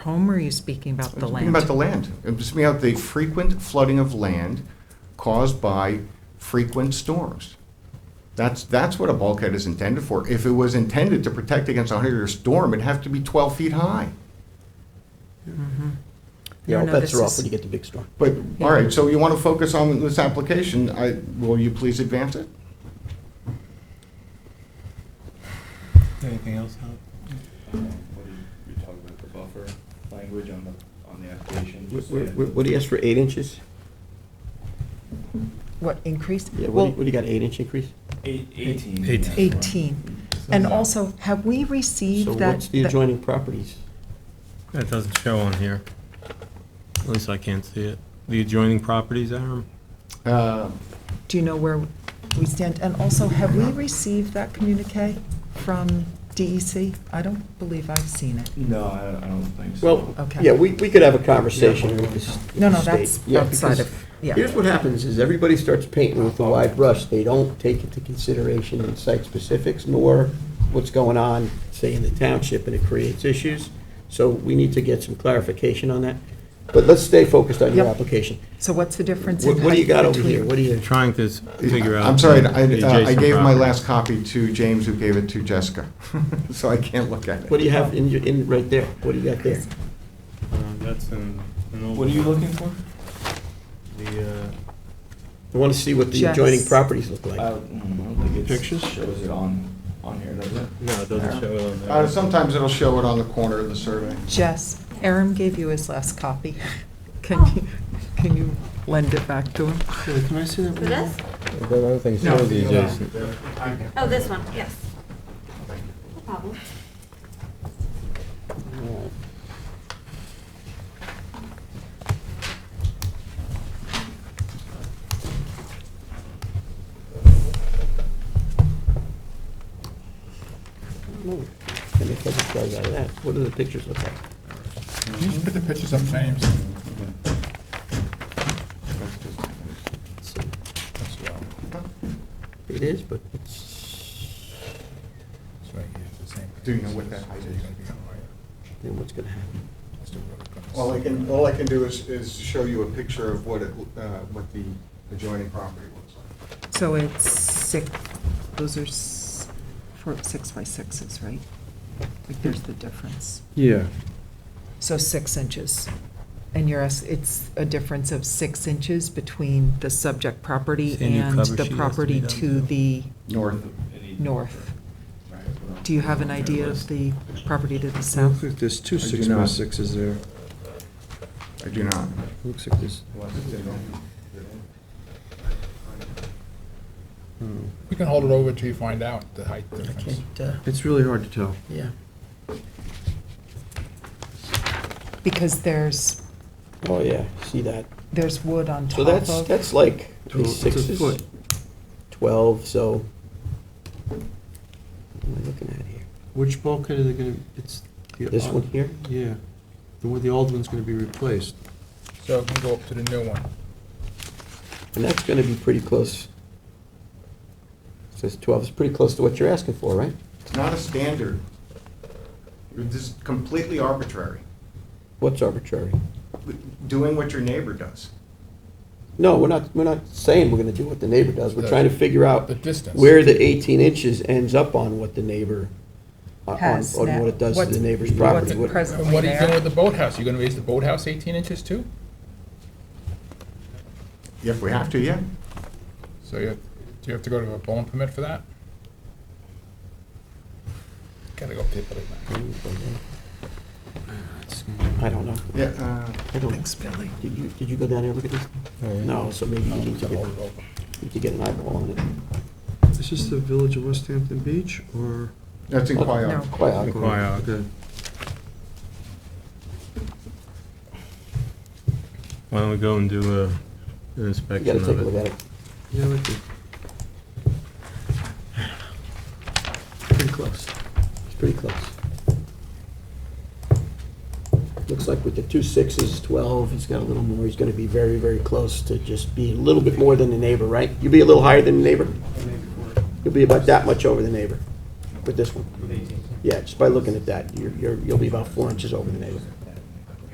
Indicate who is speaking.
Speaker 1: home, or are you speaking about the land?
Speaker 2: About the land. I'm just speaking about the frequent flooding of land caused by frequent storms. That's, that's what a bulkhead is intended for. If it was intended to protect against a hundred-year storm, it'd have to be twelve feet high.
Speaker 1: No,
Speaker 3: Yeah,
Speaker 1: no,
Speaker 3: bets
Speaker 1: this
Speaker 3: are
Speaker 1: is-
Speaker 3: off when you get to big storm.
Speaker 2: But, all right, so you want to focus on this application, I, will you please advance it?
Speaker 4: Anything else, Howard?
Speaker 5: What are you talking about, the buffer language on the, on the application?
Speaker 3: What- What what do you ask for, eight inches?
Speaker 1: What, increase?
Speaker 3: Yeah, what do
Speaker 1: Well,
Speaker 3: you- what do you got, eight inch increase?
Speaker 5: Eight- Eighteen.
Speaker 4: Eighteen.
Speaker 1: 18. And also, have we received
Speaker 3: So
Speaker 1: that?
Speaker 3: what's the
Speaker 1: that-
Speaker 3: adjoining properties?
Speaker 4: That doesn't show on here. At least I can't see it. The adjoining properties, Aaron?
Speaker 2: Uh,
Speaker 1: Do you know where we stand? And also, have we received that communique from DEC? I don't believe I've seen it.
Speaker 5: No, I, I don't think so.
Speaker 3: Well,
Speaker 1: Okay.
Speaker 3: yeah, we, we could have a conversation with this. with
Speaker 1: No,
Speaker 3: the
Speaker 1: no,
Speaker 3: state.
Speaker 1: that's
Speaker 3: Yeah,
Speaker 1: outside
Speaker 3: because
Speaker 1: of- yeah.
Speaker 3: Here's what happens, is everybody starts painting with a wide brush. They don't take into consideration the site specifics nor what's going on, say, in the township, and it creates issues. So we need to get some clarification on that. But let's stay focused on your
Speaker 1: Yep.
Speaker 3: application.
Speaker 1: So what's the difference in
Speaker 3: What what do you
Speaker 1: height
Speaker 3: got over
Speaker 1: between?
Speaker 3: here? What do you?
Speaker 4: Trying to s- figure out.
Speaker 2: I'm sorry,
Speaker 4: the
Speaker 2: I, uh, I
Speaker 4: adjacent
Speaker 2: gave my
Speaker 4: property.
Speaker 2: last copy to James, who gave it to Jessica, so I can't look at
Speaker 3: What
Speaker 2: it.
Speaker 3: do you have in, your in, right there? What do you got there?
Speaker 4: Uh, That's an. an old
Speaker 5: What are you
Speaker 4: one.
Speaker 5: looking for?
Speaker 4: The, uh,
Speaker 3: I want to see what the adjoining
Speaker 1: Jess.
Speaker 3: properties look
Speaker 5: I
Speaker 3: like.
Speaker 5: don't Uh, mm, I don't think it
Speaker 4: Pictures?
Speaker 5: shows it on, on here, does it?
Speaker 4: no, it doesn't show it on
Speaker 2: Uh,
Speaker 4: there.
Speaker 2: sometimes it'll show it on the corner of the survey.
Speaker 1: Jess, Aram gave you his last copy. Can you, can you lend it back to him?
Speaker 3: Can I see that?
Speaker 6: For this? Oh, this one, yes. No problem.
Speaker 3: Let me take a photo out of that. What do the pictures look like?
Speaker 7: Put the pictures up, James.
Speaker 3: Let's see. It is, but it's,
Speaker 2: Do you know what that height is?
Speaker 3: then what's going to happen?
Speaker 2: All I can, all I can do is, is show you a picture of what it, uh, what the adjoining property looks like.
Speaker 1: So it's six, those are s- four, six by sixes, right? Like, there's the difference.
Speaker 8: Yeah,
Speaker 1: So six inches. And you're, ask- it's a difference of six inches between the subject property
Speaker 4: It's a new
Speaker 1: and
Speaker 4: cover sheet
Speaker 1: the
Speaker 4: has to be
Speaker 1: property
Speaker 4: done,
Speaker 1: to
Speaker 4: too.
Speaker 1: the
Speaker 2: North.
Speaker 1: north. Do you have an idea of the property to the
Speaker 8: looks
Speaker 1: south?
Speaker 8: like there's two
Speaker 2: do
Speaker 8: six by
Speaker 2: not.
Speaker 8: sixes there.
Speaker 2: I do not.
Speaker 8: Looks like there's, hmm.
Speaker 7: We can hold it over till you find out the height
Speaker 3: I
Speaker 7: difference.
Speaker 3: can't, uh,
Speaker 8: it's really hard to tell.
Speaker 3: yeah.
Speaker 1: Because there's,
Speaker 3: Oh, yeah, see that.
Speaker 1: there's wood on top
Speaker 3: So that's,
Speaker 1: of.
Speaker 3: that's like
Speaker 8: Tw-
Speaker 3: the
Speaker 8: it's a
Speaker 3: sixes,
Speaker 8: foot.
Speaker 3: 12, so. What am I looking at here?
Speaker 8: Which bulkhead are they gonna, it's. the
Speaker 3: This
Speaker 8: odd-
Speaker 3: one here?
Speaker 8: Yeah, the one, the old one's gonna be replaced.
Speaker 7: So we can go up to the new one.
Speaker 3: And that's going to be pretty close. Says 12, it's pretty close to what you're asking for, right?
Speaker 2: It's not a standard. This is completely arbitrary,
Speaker 3: What's arbitrary?
Speaker 2: doing what your neighbor does.
Speaker 3: No, we're not, we're not saying we're going to do what the neighbor does. We're
Speaker 7: The-
Speaker 3: trying to figure out
Speaker 7: the distance.
Speaker 3: where the 18 inches ends up on what the neighbor, uh, on- on
Speaker 1: Has
Speaker 3: on
Speaker 1: now.
Speaker 3: what it does to
Speaker 1: What's-
Speaker 3: the neighbor's
Speaker 1: what's
Speaker 3: property.
Speaker 1: it
Speaker 3: What-
Speaker 1: present-
Speaker 7: And what are you doing
Speaker 1: There.
Speaker 7: with the boathouse? You gonna raise the boathouse eighteen inches too?
Speaker 2: If we have to, yeah.
Speaker 7: So you, do you have to go to a bone permit for that? Gotta go up to the building.
Speaker 3: I don't know.
Speaker 2: Yeah, uh,
Speaker 3: I don't,
Speaker 1: Thanks, Billy.
Speaker 3: did you, did you go down there and look at
Speaker 7: Oh,
Speaker 3: this? No, so maybe you need to
Speaker 7: Gotta
Speaker 3: get,
Speaker 7: hold it over.
Speaker 3: you need to get an eyeball on it.
Speaker 8: Is this the village of West Hampton Beach or?
Speaker 2: that's in Quiog.
Speaker 1: No.
Speaker 3: Quite awkward.
Speaker 4: Quiog.
Speaker 8: Okay.
Speaker 4: Why don't we go and do a, an
Speaker 3: You gotta
Speaker 4: inspection
Speaker 3: take a
Speaker 4: of
Speaker 3: look at
Speaker 4: it?
Speaker 3: it.
Speaker 8: Yeah, like the-
Speaker 3: Pretty close. It's pretty close. Looks like with the two sixes, 12, he's got a little more, he's gonna be very, very close to just be a little bit more than the neighbor, right? You'll be a little higher than the neighbor? You'll be about that much over the neighbor with this one. Yeah, just by looking at that, you're, you're, you'll be about four inches over the neighbor.